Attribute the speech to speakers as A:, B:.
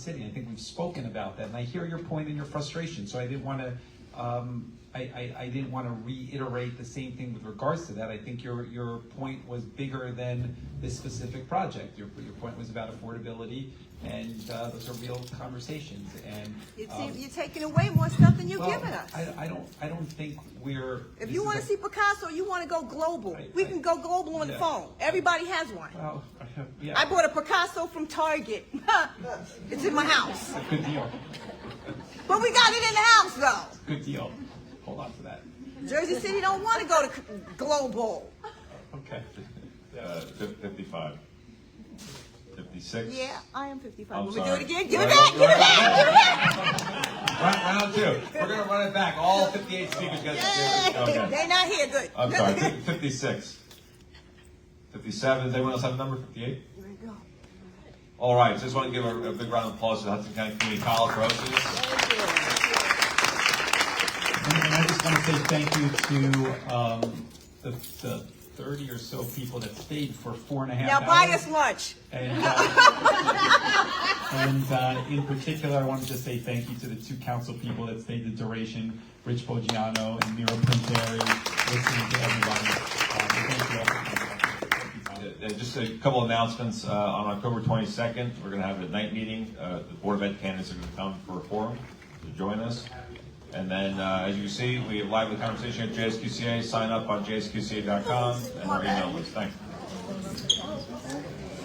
A: city. I think we've spoken about that, and I hear your point and your frustration, so I didn't want to, um, I, I, I didn't want to reiterate the same thing with regards to that. I think your, your point was bigger than this specific project. Your, your point was about affordability, and, uh, those are real conversations, and.
B: You
A: um,
B: see, you're taking away more stuff than you're
A: well,
B: giving us.
A: I, I don't, I don't think we're.
B: If
A: this
B: you
A: is
B: want
A: a-
B: to see Picasso, you want to go global.
A: Right,
B: We
A: right.
B: can go global on the
A: Yeah.
B: phone. Everybody has one.
A: Well, yeah.
B: I bought a Picasso from Target. It's in my house.
A: Good deal,
B: But we got it in the house though.
A: good deal. Hold on to that.
B: Jersey City don't want to go to c- global.
A: Okay.
C: Uh, fif- Fifty-five. Fifty-six.
B: Yeah, I am 55.
C: I'm
B: Will we do
C: sorry.
B: it again? Give it
C: Right,
B: back, give it
C: right.
B: back, give it back.
A: Round, round two. We're gonna run it back. All fifty-eight speakers got to do it.
C: Okay.
B: They not here, good.
C: I'm sorry, fif- fifty-six. Fifty-seven, does anyone else have a number, fifty-eight?
B: Here we go.
C: All right, just want to give a, a big round of applause to the Hudson County Community College for hosting this.
A: And and I just want to say thank you to um, the the 30 or so people that stayed for four and a half
B: Now
A: hours.
B: buy us lunch.
A: And, uh, and uh, in particular, I wanted to say thank you to the two council people that stayed the duration, Rich Poggiano and Mira Pinteri, listening to everybody. Uh, thank you all for coming. Thank you, Tom.
C: Uh, uh, Just a couple announcements. Uh, On October 22nd, we're going to have a night meeting. Uh, The Board of Ed candidates are going to come for a forum to join us. And then, uh, as you can see, we have lively conversation at JSQCA. Sign up on jsqca.com and our email list. Thanks.